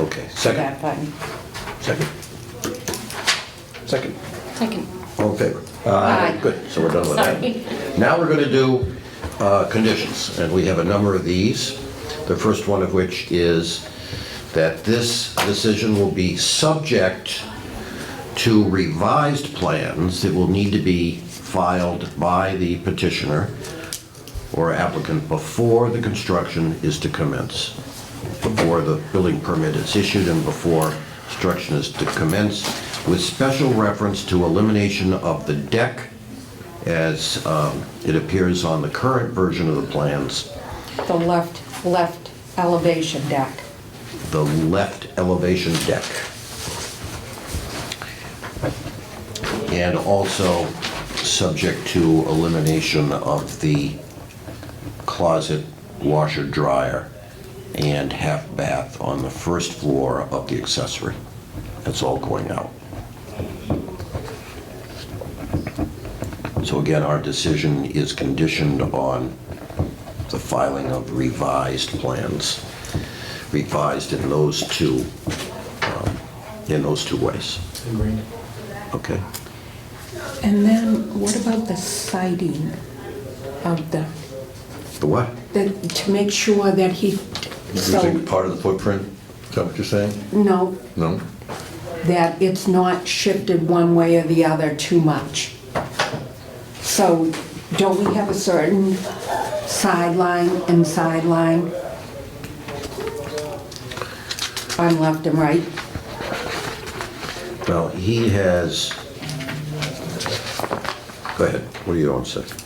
Okay, second, that button. second. Second, Second. all in favor? Aye. Good, so we're done with Sorry. that. Now we're going to do uh, conditions, and we have a number of these. The first one of which is that this decision will be subject to revised plans that will need to be filed by the petitioner or applicant before the construction is to commence, before the building permit is issued and before construction is to commence, with special reference to elimination of the deck as um, it appears on the current version of the plans, The left, left elevation deck. the left elevation deck. And also subject to elimination of the closet washer dryer and half bath on the first floor of the accessory. That's all going out. So again, our decision is conditioned on the filing of revised plans, revised in those two, um, in those two ways. Okay. And then what about the siding of the, The what? the- to make sure that he, so, Using part of the footprint, is that what you're saying? no, No? that it's not shifted one way or the other too much. So don't we have a certain sideline and sideline? On left and right? Well, he has, go ahead, what do you want to say?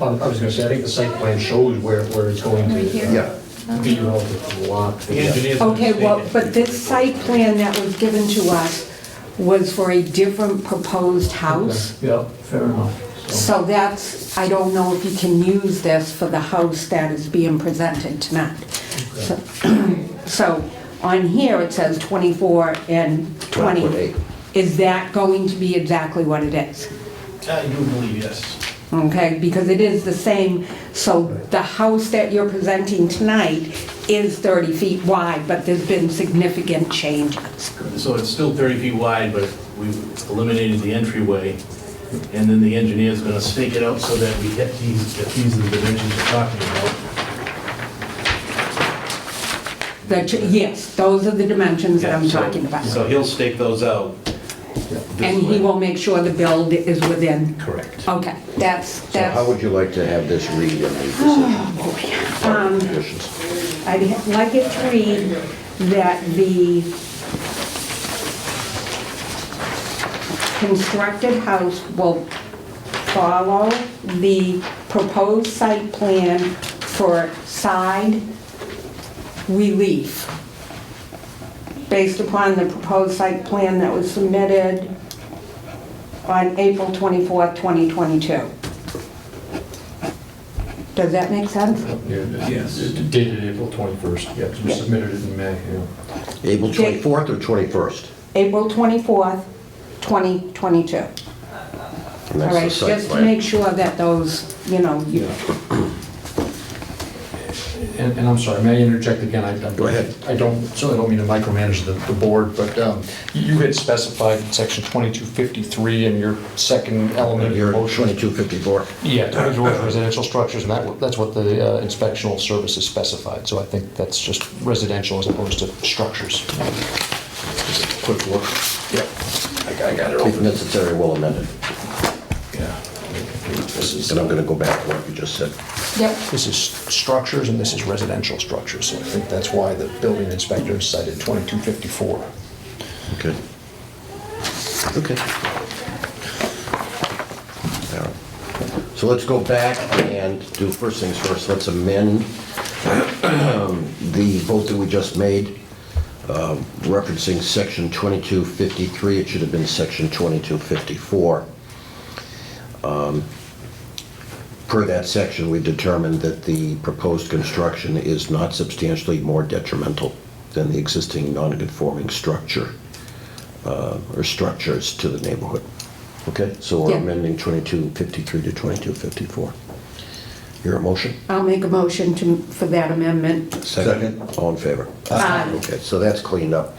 Um, I was gonna say, I think the site plan shows where, where it's going to. Yeah. uh, Be relative to the lot. The engineer's Okay, well, mistaken. but this site plan that was given to us was for a different proposed house. Yeah, fair enough. So, So that's, I don't know if you can use this for the house that is being presented tonight. So- So on here, it says 24 and 20. 12.8. Is that going to be exactly what it is? I do Uh, believe, yes. Okay, because it is the same, so the house that you're presenting tonight is 30 feet wide, but there's been significant changes. So it's still 30 feet wide, but we eliminated the entryway, and then the engineer's going to stake it out so that we hit these, that these are the dimensions we're talking about. The ch- Yes, those are the dimensions that I'm Yeah, so- talking about. So he'll stake those out. And he will make sure the build is within, Correct. okay, that's, So how that's, would you like to have this read in the decision? Oh, Um, Part of the conditions. I'd ha- like it to read that the constructed house will follow the proposed site plan for side relief based upon the proposed site plan that was submitted on April 24th, 2022. Does that make sense? yes. Dated April 21st, yeah, 'cause we submitted it in May, yeah. April Okay. 24th or 21st? April 24th, 2022. All And that's the right, site just to plan. make sure that those, you know, you- And, and I'm sorry, may I interject again? I- I'm- Go ahead. I don't, certainly don't mean to micromanage the, the board, but um, you you had specified in section 2253 in your second element of your You're motion. 2254. Yeah, individual residential structures, and that, that's what the uh, inspectional service is specified, so I think that's just residential as opposed to structures. Just a Quick look. Yep. I got- I got it If open. necessary, we'll amend it. Yeah. This is, And I'm going to go back to what you just said. Yep. this is structures and this is residential structures, so I think that's why the building inspector cited 2254. Okay. Okay. All right. So let's go back and do first things first, let's amend the vote that we just made um, referencing section 2253, it should have been section 2254. Um, Per that section, we determined that the proposed construction is not substantially more detrimental than the existing non-conforming structure uh, or structures to the neighborhood. Okay, so we're Yeah. amending 2253 to 2254. Your motion? I'll make a motion to, for that amendment. Second. All in favor? Aye. Okay, so that's cleaned up.